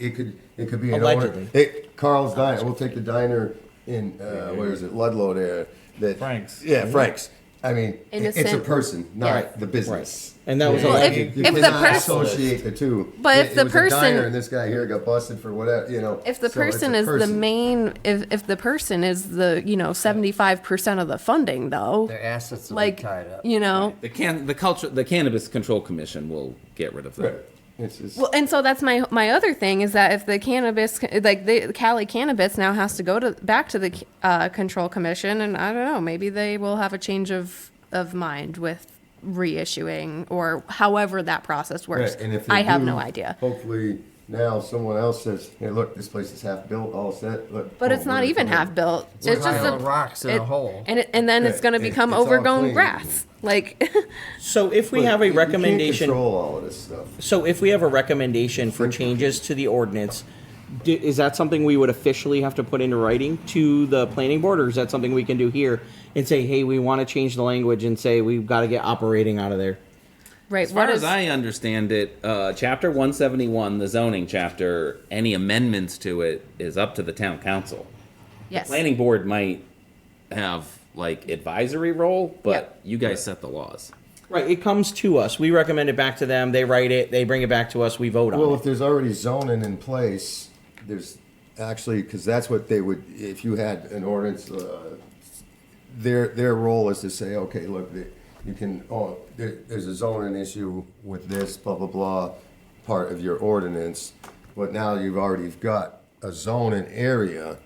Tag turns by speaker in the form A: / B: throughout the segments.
A: it could it could be an
B: Allegedly.
A: owner. It, Carl's Diner. We'll take the diner in uh, where is it Ludlow there? That
C: Frank's.
A: Yeah, Frank's. I mean, it- it's a
D: Innocent.
A: person, not
D: Yes.
A: the business.
B: And that was
D: Well,
B: a
D: if-
A: you
D: if the
A: cannot
D: pers-
A: associate the two.
D: But
A: It-
D: if
A: it
D: the
A: was
D: person-
A: a diner and this guy here got busted for whatever, you know.
D: If
A: so
D: the
A: it's a
D: person is the
A: person.
D: main, if, if the person is the, you know, seventy-five percent of the funding though,
E: Their assets will be
D: like,
E: tied up.
D: you know,
F: The can the culture the cannabis control commission will get rid of that.
A: Right. It's just,
D: well, and so that's my, my other thing is that if the cannabis, like the Cali cannabis now has to go to, back to the, uh, control commission and I don't know, maybe they will have a change of, of mind with reissuing or however that process works.
A: Right, and if they
D: I have
A: do,
D: no idea.
A: Hopefully now someone else says, "Hey, look, this place is half built, all set." Look,
D: But
A: oh,
D: it's not
A: we're-
D: even
A: we're-
D: half built. It's
E: a
D: just
E: pile
D: a
E: of rocks in a
D: it-
E: hole.
D: And it, and then it's
A: Yeah,
D: going to
A: it-
D: become
A: it's all
D: overgrown
A: clean.
D: grass. Like
B: so if we
A: Look,
B: have a
A: you can't
B: recommendation,
A: control all of this stuff.
B: so if we have a recommendation for changes to the ordinance, do, is that something we would officially have to put into writing to the planning board, or is that something we can do here and say, hey, we want to change the language and say we've got to get operating out of there?
D: right,
F: As
D: what
F: far as
D: is-
F: I understand it, uh, chapter one seventy one, the zoning chapter, any amendments to it is up to the town council.
D: yes.
F: Planning board might have like advisory role, but
D: Yep.
F: you guys set the laws.
B: Right, it comes to us. We recommend it back to them. They write it. They bring it back to us. We vote on
A: Well,
B: it.
A: if there's already zoning in place, there's actually, because that's what they would, if you had an ordinance, uh, their, their role is to say, okay, look, the- you can, oh, there, there's a zoning issue with this, blah, blah, blah, part of your ordinance, but now you've already got a zoning area.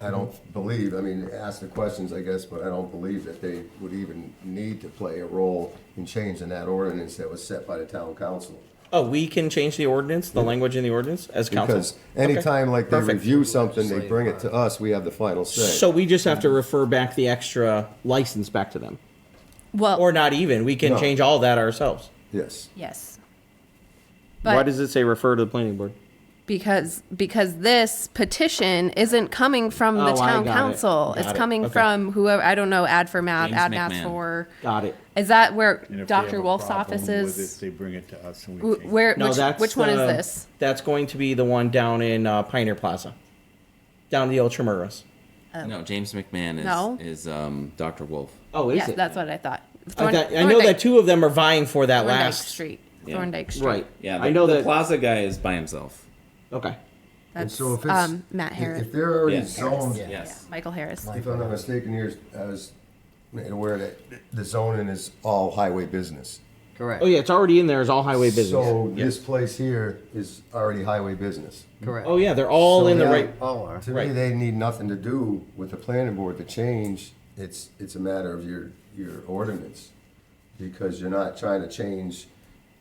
A: I don't believe, I mean, ask the questions, I guess, but I don't believe that they would even need to play a role in changing that ordinance that was set by the town council.
B: Oh, we can change the ordinance, the language in the ordinance as council.
A: Because anytime like they
B: Perfect.
A: review something, they bring it to us, we have the final say.
B: So we just have to refer back the extra license back to them.
D: well,
B: Or not even. We can
A: No.
B: change all that ourselves.
A: Yes.
D: yes.
B: Why
D: But
B: does it say refer to the planning board?
D: because because this petition isn't coming from the
B: Oh, I
D: town
B: got it.
D: council. It's
B: Got it.
D: coming
B: Okay.
D: from whoever I don't know. Ad for math,
F: James
D: ad math
F: McMahon.
D: for.
B: Got it.
D: Is that where
C: And if they have
D: Dr.
C: a
D: Wolf's
C: problem
D: office is?
C: with it, They bring it to us and we
D: Wh-
C: change it.
D: Where
B: No,
D: which,
B: that's uh,
D: which one is
B: the-
D: this?
B: That's going to be the one down in uh, Pioneer Plaza, down in the Ultramuros.
F: No, James McMahon is
D: Oh. No.
F: is um, Dr. Wolf.
B: Oh, is
D: Yes,
B: it?
D: that's what I thought.
B: I,
D: Thorn-
B: thought- I know that
D: Thorndike-
B: two of them are vying for that
D: Thorndike
B: last.
D: Street,
F: Yeah.
D: Thorndike Street.
B: Right.
F: Yeah,
B: I know
F: the
B: that.
F: Plaza guy is by himself.
B: okay.
A: And
D: That's
A: so if it's-
D: um, Matt
A: if-
D: Harris.
A: If they're already
F: Yeah.
A: zoned,
E: Yeah.
F: Yes.
D: Michael Harris.
A: if I'm not mistaken, here, I was made aware that the zoning is all highway business.
E: Correct.
B: Oh yeah, it's already in there as all highway business.
A: So this place here is already highway business.
E: Correct.
B: oh yeah, they're all
A: So
B: in the
A: now-
B: right.
E: All are.
A: To me,
B: Right.
A: they need nothing to do with the planning board to change. It's, it's a matter of your, your ordinance. Because you're not trying to change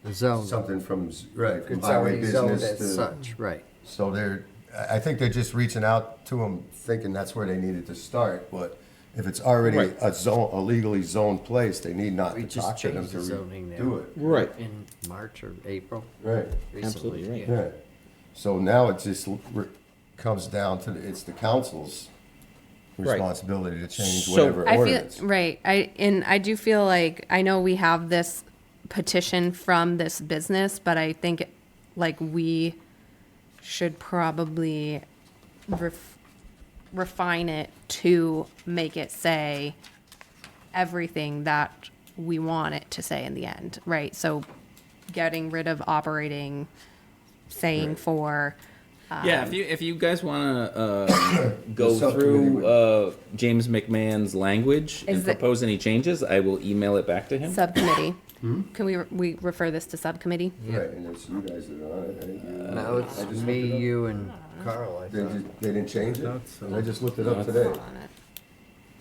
E: The zone.
A: something from, z- right, from
E: Oh. It's
A: highway
E: already zoned
A: business to.
E: as such, right.
A: So they're, I I think they're just reaching out to them, thinking that's where they needed to start, but if it's already
B: Right.
A: a zone, a legally zoned place, they need not
E: We
A: to
E: just
A: talk to them
E: changed
A: to
E: the
A: re-
E: zoning there.
A: do it.
B: Right.
E: In March or April.
A: Right,
E: recently.
B: Absolutely right.
A: yeah. So now it just l- re- comes down to, the- it's the council's
B: Right.
A: responsibility to change
B: So-
A: whatever
D: I
A: ordinance.
D: feel right. I and I do feel like I know we have this petition from this business, but I think like we should probably ref, refine it to make it say everything that we want it to say in the end, right? So getting rid of operating, saying for Um,
F: yeah, if you if you guys want to uh,
A: The
F: go
A: subcommittee
F: through
A: would-
F: uh, James McMahon's language and
D: Is it-
F: propose any changes, I will email it back to him.
D: subcommittee. Can we we refer this to subcommittee?
A: Right, and it's you guys that are on it, I think you-
E: Now it's
A: I just
E: me,
A: looked it up.
E: you, and Carl, I
A: They
E: thought.
A: just, they didn't change it? I just looked it up
F: it's-
A: today.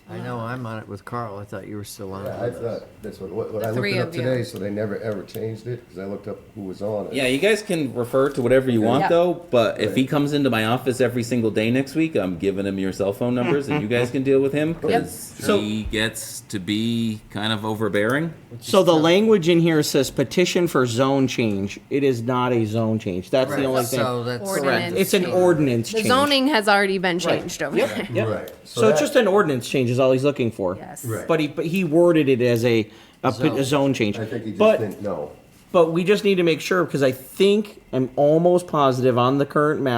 E: I know I'm on it with Carl. I thought you were still on
A: Yeah, I
E: it with us.
A: thought, that's what, what what I
D: The
A: looked
D: three
A: it up
D: of you.
A: today, so they never ever changed it, because I looked up who was on it.
F: Yeah, you guys can refer to whatever you want
D: Yeah.
F: though, but if he comes into my office every single day next week, I'm giving him your cell phone numbers and you guys can deal with him cuz
B: So-
F: he gets to be kind of overbearing.
B: So the language in here says petition for zone change. It is not a zone change. That's the
E: Right.
B: only thing.
E: So that's-
B: correct.
D: Ordinance
B: It's an
D: change.
B: ordinance
D: The
B: change.
D: zoning has already been changed over
B: Yep,
D: there.
B: yep.
A: Right.
B: So,
A: So
B: it's
A: that-
B: just an ordinance change is all he's looking for.
D: Yes.
A: Right.
B: But he but he worded it as a a, pet- a zone change.
A: I think he just
B: but
A: didn't know.
B: But we just need to make sure because I think I'm almost positive on the current map.